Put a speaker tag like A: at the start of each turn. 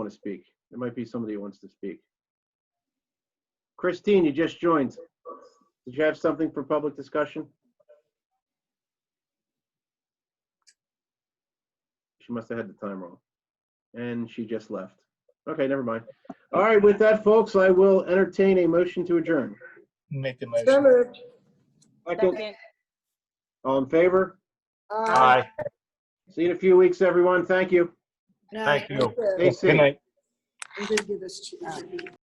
A: want to speak. There might be somebody who wants to speak. Christine, you just joined. Did you have something for public discussion? She must have had the time wrong. And she just left. Okay, never mind. All right, with that, folks, I will entertain a motion to adjourn.
B: Make the
C: So
B: motion.
C: moved.
A: Second, all in favor?
C: Aye.
B: Aye.
A: See you in a few weeks, everyone. Thank you.
C: No,
B: Thank you.
C: good.
A: Stay
B: Good
A: safe.
B: night.
C: You did give us two.